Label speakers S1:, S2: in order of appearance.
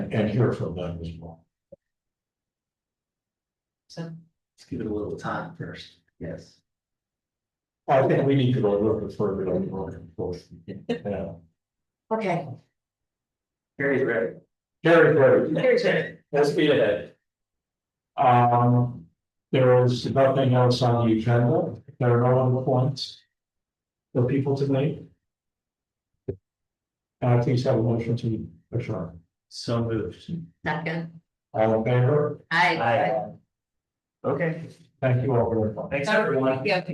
S1: and, and hear from them as well.
S2: So,
S3: Let's give it a little time first. Yes.
S1: I think we need to go a little bit further on the road, of course. Yeah.
S2: okay.
S3: Very ready.
S1: Gary, Gary.
S2: Here's it.
S1: Let's be ahead. Um, there is nothing else on the agenda. There are no other points. For people to make. And I please have a motion to adjourn.
S3: So moved.
S2: Second.
S1: All in favor?
S2: Aye.
S3: Aye. Okay,
S1: Thank you all very much.
S3: thanks everyone.
S2: Yeah.